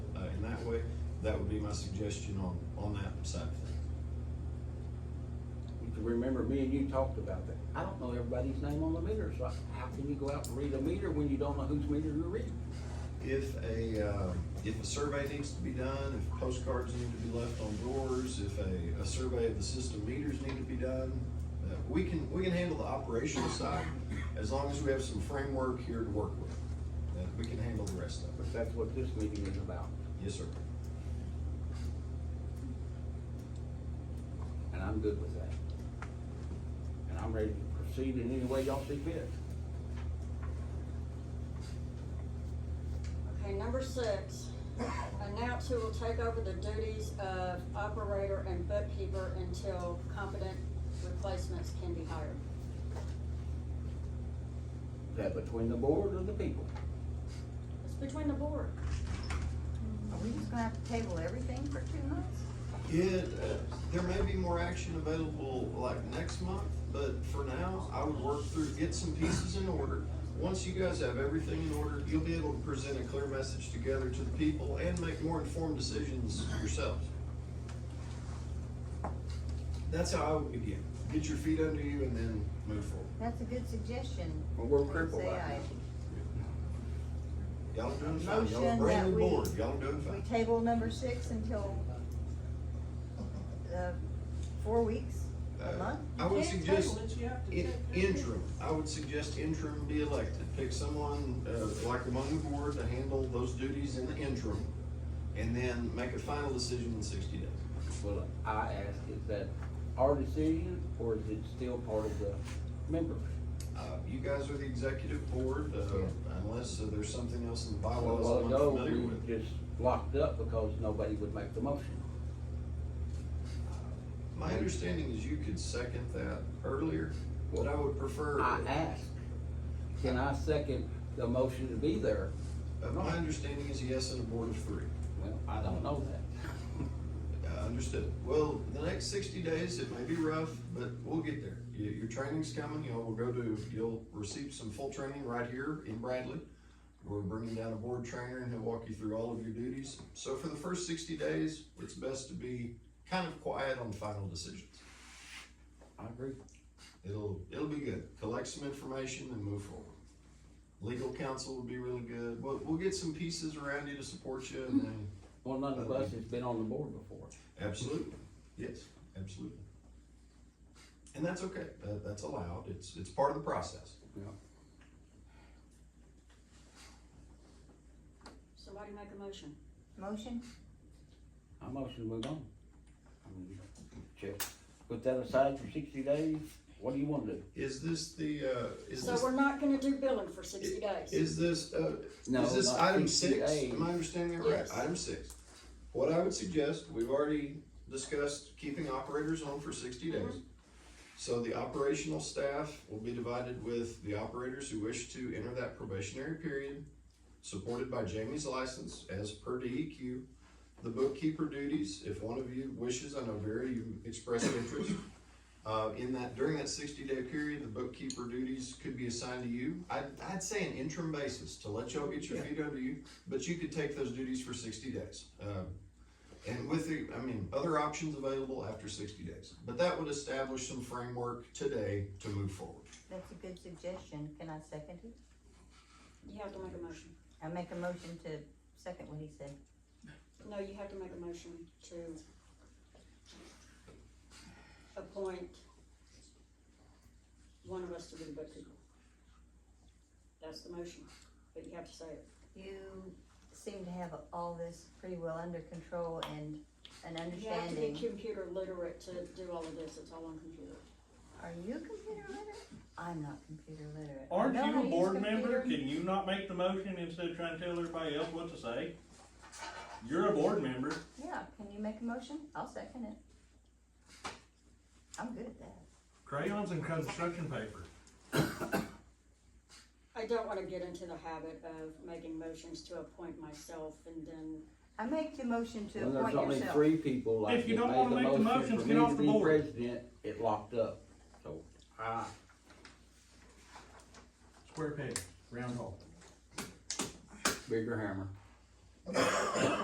uh, that would be my suggestion on, on that side of things. You can remember me and you talked about that. I don't know everybody's name on the meter, so how can you go out and read a meter when you don't know whose meter you're reading? If a, uh, if a survey needs to be done, if postcards need to be left on doors, if a, a survey of the system meters need to be done, uh, we can, we can handle the operational side as long as we have some framework here to work with. Uh, we can handle the rest of it. But that's what this meeting is about. Yes, sir. and I'm good with that. And I'm ready to proceed in any way y'all see fit. Okay, number six, announce who will take over the duties of operator and bookkeeper until competent replacements can be hired. Is that between the board or the people? It's between the board. Are we just gonna have to table everything for two months? It, uh, there may be more action available like next month, but for now, I would work through, get some pieces in order. Once you guys have everything in order, you'll be able to present a clear message together to the people and make more informed decisions yourselves. That's how I would begin. Get your feet under you and then move forward. That's a good suggestion. Well, we're crippled Say right aye. Y'all are doing fine. Y'all are Motion brand that new we- board. Y'all are doing We fine. table number six until, uh, four weeks, a Uh, month? I would suggest. you have to In- check the Interim, I would suggest interim be elected, pick someone, uh, like among the board to handle those duties in the interim. And then make a final decision in sixty days. Well, I ask, is that our decision or is it still part of the members? Uh, you guys are the executive board, uh, unless uh, there's something else in the A bylaws while I'm ago, unfamiliar we with. just locked up because nobody would make the motion. My understanding is you could second that earlier, but I would prefer. I ask, can I second the motion to be there? Uh, My understanding is yes, and a board of three. Well, I don't know that. I Uh, understood. Well, the next sixty days, it may be rough, but we'll get there. Your, your training's coming, y'all will go to, you'll receive some full training right here in Bradley. We're bringing down a board trainer and he'll walk you through all of your duties. So for the first sixty days, it's best to be kind of quiet on final decisions. I agree. It'll, it'll be good. Collect some information and move forward. Legal counsel would be really good. We'll, we'll get some pieces around you to support you and then, Well, none of us has been on the board before. Absolutely, yes, absolutely. And that's okay, that, that's allowed, it's, it's part of the process. Yeah. Somebody make a motion. Motion? I motion to move on. I mean, Just put that aside for sixty days, what do you wanna do? Is this the, uh, is So this, we're not gonna do billing for sixty days. is this, uh, No, is this not item 60 six? days. Am I understanding that right? Yes. Item six. What I would suggest, we've already discussed keeping operators on for sixty days. So the operational staff will be divided with the operators who wish to enter that probationary period, supported by Jamie's license as per DEQ. The bookkeeper duties, if one of you wishes, I know Vera, you expressed interest. Uh, in that, during that sixty-day period, the bookkeeper duties could be assigned to you. I'd, I'd say an interim basis to let y'all get your feet under you, but you could take those duties for sixty days. Um, and with the, I mean, other options available after sixty days, but that would establish some framework today to move forward. That's a good suggestion. Can I second it? You have to make a motion. I make a motion to second what he said. No, you have to make a motion to appoint one of us to be the bookkeeper. That's the motion, but you have to say it. You seem to have all this pretty well under control and an You have to be understanding. computer literate to do all of this, it's all on computer. Are you computer literate? I'm not computer literate. I Aren't know how you to a use board member? computers. Can you not make the motion instead of trying to tell everybody else what to say? You're a board member. Yeah, can you make a motion? I'll second it. I'm good at that. Crayons and construction paper. I don't wanna get into the habit of making motions to appoint myself and then, I make the motion to When there's appoint only yourself. three people like If you that don't wanna made make the the motion motions, for get me off to the be board. president, it locked up, so I, Square peg, round hole. bigger hammer.